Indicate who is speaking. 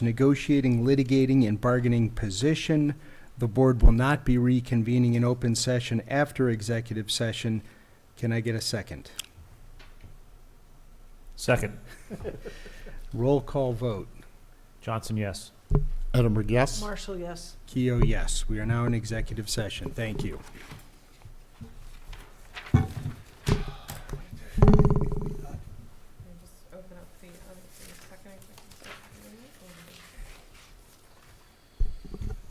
Speaker 1: negotiating, litigating, and bargaining position. The board will not be reconvening in open session after executive session. Can I get a second?
Speaker 2: Second.
Speaker 1: Roll call vote.
Speaker 2: Johnson, yes.
Speaker 3: Edinburgh, yes.
Speaker 4: Marshall, yes.
Speaker 1: Keo, yes. We are now in executive session. Thank you.